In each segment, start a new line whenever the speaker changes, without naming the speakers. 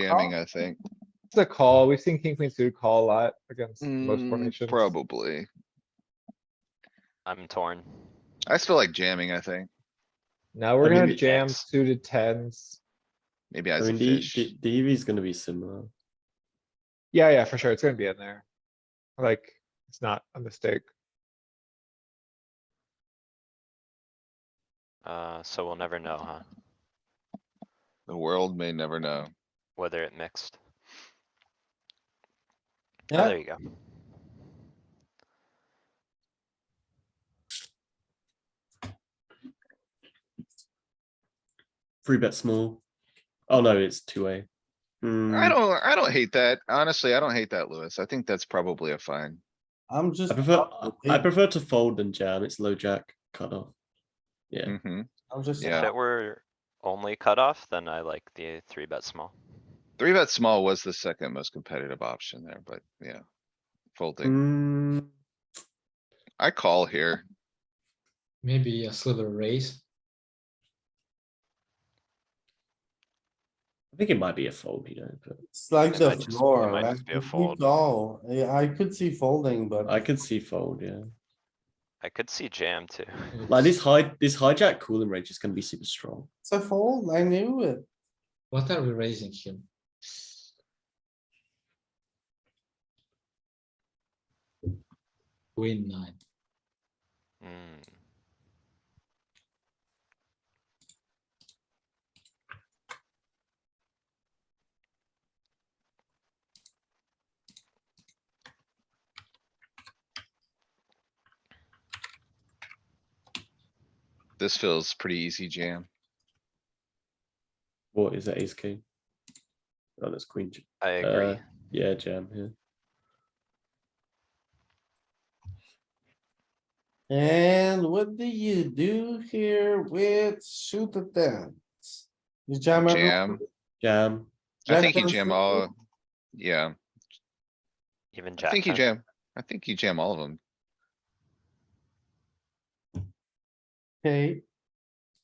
jamming, I think.
It's a call. We've seen king, queen suited call a lot against most
Mm,
formations.
Probably.
I'm torn.
I still like jamming, I think.
Now we're
I mean,
gonna
we
jam
X.
suited tens.
Maybe
I
as a
mean, the,
fish.
the, the EV is gonna be similar.
Yeah, yeah, for sure. It's gonna be in there. Like, it's not a mistake.
Uh, so we'll never know, huh?
The world may never know.
Whether it mixed. Oh,
Yeah.
There you go.
Three bet small. Oh no, it's two Hmm. way. Mm.
I don't, I don't hate that. Honestly, I don't hate that, Lewis. I think that's probably a fine.
I'm just.
I prefer I
I'm
prefer to fold than jam. It's low jack cut off. Yeah.
Mhm.
just.
If
Yeah.
it were only cutoff, then I like the three bet small.
Three bet small was the second most competitive option there, but yeah. Folding.
Mm,
I call here.
Maybe a sliver raise.
I think it might be a fold, you know, but
It's like
It
the
might just- it
floor,
might
like
just be a
if we
fold.
call, eh, I could see folding, but
I could see fold, yeah.
I could see jam too.
Like this high this hijack cooling range is gonna be super strong.
it's a fold, I knew it.
What are we raising here? Queen nine.
Mm,
This feels pretty easy jam.
What is that ace king? Oh, that's queen. j-
I agree.
Uh, Yeah, jam, yeah.
And what do you do here with shoot the tens? You jam. everyone?
Jam.
Jam.
I
Jack
think you
ten
jam
suited?
all, yeah,
Even
I
jack.
think you
ten.
jam. I think you jam all of them.
Okay,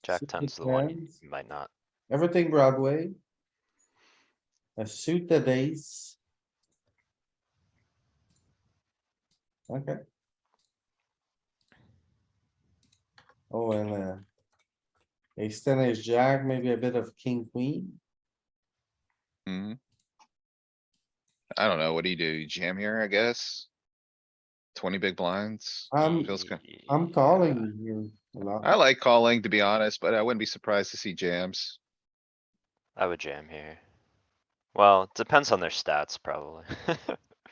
Jack
suited
ten's the one you
tens.
might not.
everything Broadway. A suit the ace. Okay. Oh, and uh. Ace ten, ace jack, maybe a bit of king, queen.
Hmm. I don't know. What do you do? You Jam here, I guess? Twenty big blinds?
Um,
Feels good.
I'm calling you a lot.
I like calling, to be honest, but I wouldn't be surprised to see jams.
I would jam here. Well, it depends on their stats, probably.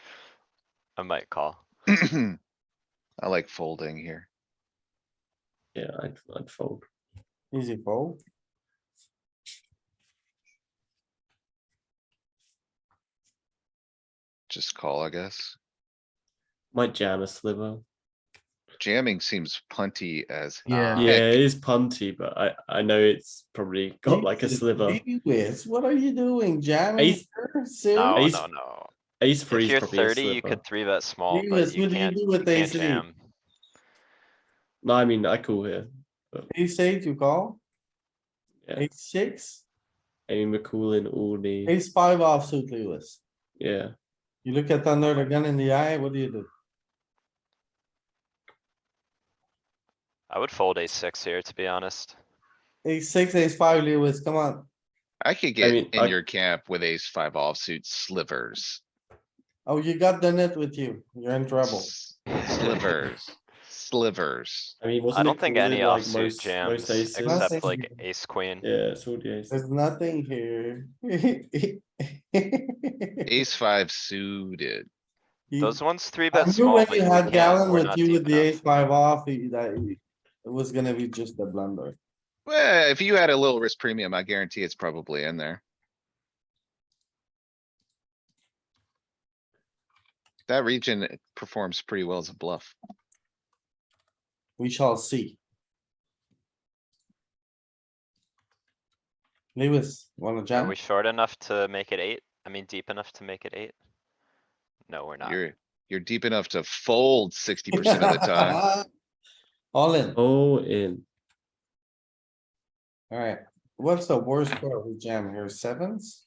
I might call.
I like folding here.
Yeah, I'd I'd fold.
Easy fold.
Just call, I guess.
Might jam a sliver.
Jamming seems punty as.
Yeah.
Yeah,
heck.
it is punty, but I I know it's probably got like a
Jesus,
sliver.
Lewis, what are you doing, jamming?
Ace-
here?
No,
Serious?
Ace-
no, no.
Ace
If
three
you're
is probably a
thirty, you
sliver.
could three bet small,
Lewis,
but you
what do you
can't,
do
you
with
can't
ace eight?
jam.
No, I mean I call here.
Ace eight, you call?
Yeah.
Ace six,
Amy McCoolin, Alney.
ace five offsuit, Lewis.
Yeah,
You look at Thunder the gun in the eye, what do you do?
I would fold ace six here, to be honest.
Ace six, ace five, Lewis, come on.
I could
I
get
mean, I-
in your camp with ace five offsuit slivers.
Oh, you got the net with you. You're in trouble.
S- Slivers, slivers.
I mean, wasn't
I
it
don't think
called
any
in, like,
offsuit
most-
jams
most aces?
except
Nothing.
like ace queen.
Yeah, it's all the ace.
There's nothing here.
Ace five suited.
Those ones three
I
bet
knew
small.
when
but
you
you
had
can't-
Galen
we're
with
not
you
deep
with the ace
enough.
five off, he- that, he- it was gonna be just a blunder.
Well, if you had a little risk premium, I guarantee it's probably in there. That region performs pretty well as a bluff.
We shall see. Lewis, wanna
Are
jam?
we short enough to make it eight? I mean, deep enough to make it eight? No, we're not.
You're, you're deep enough to fold sixty percent of the time.
All in,
All in.
alright. What's the worst pair we jam here? Sevens?